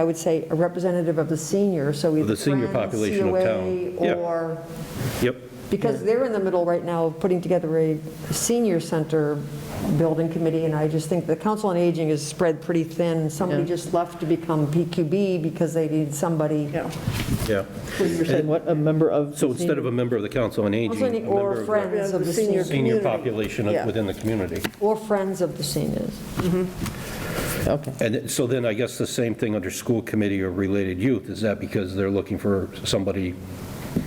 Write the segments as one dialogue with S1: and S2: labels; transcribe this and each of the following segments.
S1: I would say a representative of the senior, so either
S2: the senior
S1: Friends,
S2: population of town.
S1: COA,
S2: Yeah.
S1: Or,
S2: Yep,
S1: because they're in the middle right now of putting together a senior center building committee, and I just think the Council on Aging is spread pretty thin. Somebody just left to become PQB because they need somebody.
S3: Yeah.
S2: yeah.
S3: You're saying what, a member of?
S2: So instead of a member of the Council on Aging, a
S1: Also need-
S2: member
S1: Or
S2: of the
S1: friends of the
S3: The senior-
S1: seniors.
S2: senior
S3: community.
S2: population
S3: Yeah.
S2: of- within the community.
S1: Or friends of the seniors.
S3: Okay.
S2: And it- so then I guess the same thing under school committee or related youth, is that because they're looking for somebody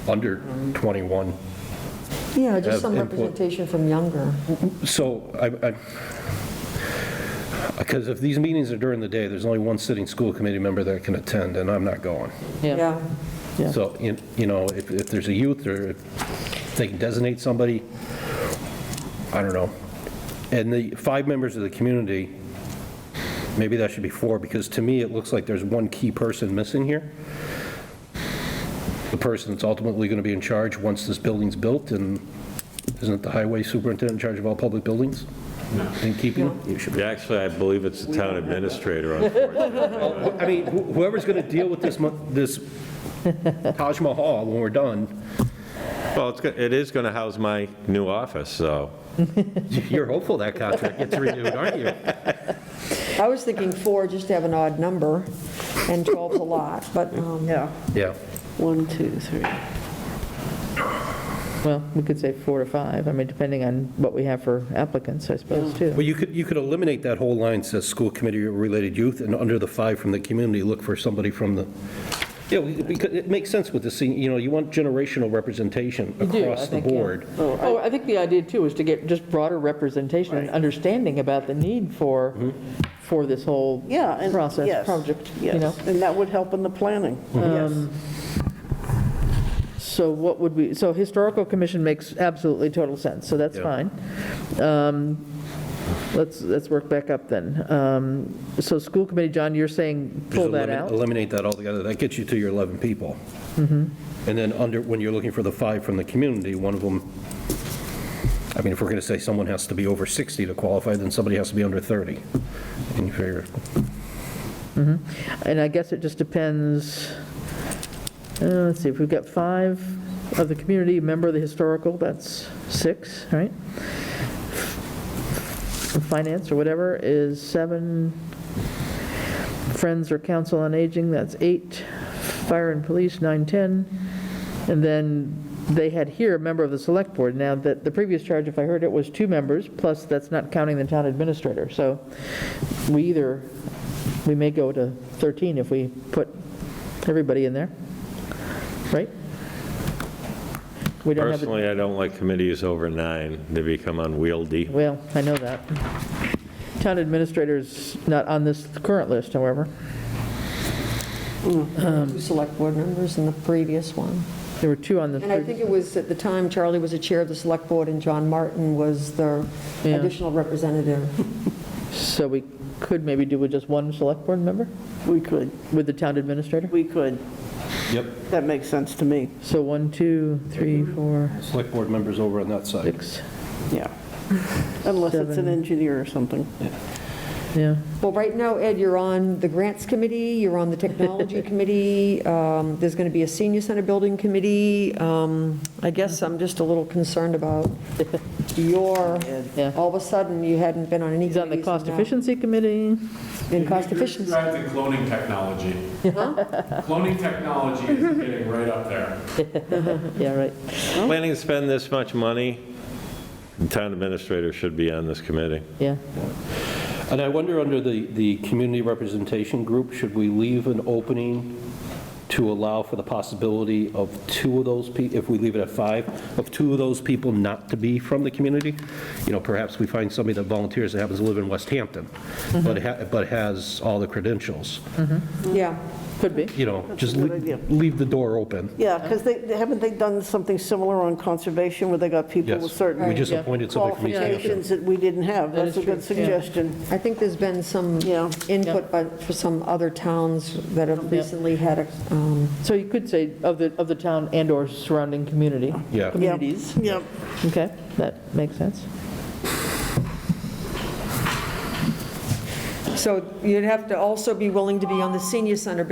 S2: under 21?
S1: Yeah,
S2: Have
S1: just some
S2: input.
S1: representation from younger.
S2: So I, I, because if these meetings are during the day, there's only one sitting school committee member that can attend, and I'm not going.
S3: Yeah.
S1: Yeah.
S3: Yeah.
S2: So, you you know, if, if there's a youth, or if they can designate somebody, I don't know. And the five members of the community, maybe that should be four, because to me, it looks like there's one key person missing here. The person that's ultimately going to be in charge once this building's built, and isn't the highway superintendent in charge of all public buildings? And keeping them? You should be.
S4: Yeah, Actually, I believe it's the town administrator, unfortunately.
S2: I mean, wh- whoever's going to deal with this, mon- this Taj Mahal when we're done,
S4: Well, it's, go- it is going to house my new office, so.
S2: You're hopeful that contract gets renewed, aren't you?
S1: I was thinking four, just to have an odd number, and 12's a lot, but, um,
S3: Yeah.
S2: Yeah.
S3: One, two, three. Well, we could say four to five, I mean, depending on what we have for applicants, I suppose, too.
S2: Well, you could, you could eliminate that whole line, says school committee or related youth, and under the five from the community, look for somebody from the, yeah, we- because it makes sense with the, sen- you know, you want generational representation
S3: You do, I
S2: across the
S3: think, yeah.
S2: board.
S3: Oh, I think the idea, too, is to get just broader representation and understanding about the need for, for this whole
S5: Yeah, and,
S3: process,
S5: yes.
S3: project, you know?
S5: Yes, and that would help in the planning,
S3: Um,
S5: yes.
S3: So what would we, so historical commission makes absolutely total sense, so that's
S2: Yeah.
S3: fine. Um, Let's, let's work back up then. Um, So school committee, John, you're saying
S2: Just
S3: pull that
S2: elimin-
S3: out? Mm-hmm.
S2: Eliminate that altogether, that gets you to your 11 people. And then under, when you're looking for the five from the community, one of them, I mean, if we're going to say someone has to be over 60 to qualify, then somebody has to be under 30. And you figure,
S3: And I guess it just depends, uh, let's see, if we've got five of the community, a member of the historical, that's six, right? Finance or whatever is seven. Friends or council on aging, that's eight. Fire and police, nine, 10. And then they had here a member of the select board. Now, that, the previous charge, if I heard it, was two members, plus that's not counting the town administrator. So we either, we may go to 13 if we put everybody in there, right? We don't have, a-
S4: Personally, I don't like committees over nine. They become unwieldy.
S3: well, I know that. Town administrator's not on this current list, however. Um,
S1: two select board members in the previous one.
S3: There were two on the.
S1: And I think it was, at the time, Charlie was the chair of the select board, and John Martin was the
S3: Yeah.
S1: additional representative.
S3: So we could maybe do with just one select board member,
S5: We could,
S3: with the town administrator?
S5: we could.
S2: yep,
S5: That makes sense to me,
S3: So one, two, three, four,
S2: select board members over on that side.
S3: six,
S5: yeah. Unless it's an
S3: Seven.
S5: engineer or something.
S3: yeah.
S1: Well, right now, Ed, you're on the grants committee, you're on the technology committee, um, there's going to be a senior center building committee. Um, I guess I'm just a little concerned about your,
S3: Yeah.
S1: all of a sudden, you hadn't been on any
S3: He's on the
S1: committees and
S3: cost
S1: now-
S3: efficiency committee.
S1: And cost
S6: You're
S1: efficiency.
S6: describing cloning technology. Cloning technology is getting right up there.
S3: Yeah, right.
S4: Planning to spend this much money, the town administrator should be on this committee.
S3: Yeah.
S2: And I wonder, under the, the community representation group, should we leave an opening to allow for the possibility of two of those, peo- if we leave it at five, of two of those people not to be from the community? You know, perhaps we find somebody that volunteers that happens to live in West Hampton, but ha- but has all the credentials.
S1: Yeah,
S3: Could be.
S2: You know, just
S5: a good
S2: le-
S5: idea.
S2: leave the door open.
S5: Yeah, because they, they- haven't they done something similar on conservation where they got people with
S2: Yes, we
S5: certain
S2: just appointed somebody from E East Hampton.
S5: qualifications that we didn't have?
S3: That is
S5: That's a good
S3: true, yeah.
S5: suggestion.
S1: I think there's been some
S5: Yeah.
S1: input by, for some other towns that have recently had a, um,
S3: So you could say of the, of the town and/or surrounding community.
S2: Yeah.
S5: Yep,
S3: Communities.
S5: Yep,
S3: Okay, that makes sense.
S1: So you'd have to also be willing to be on the senior center building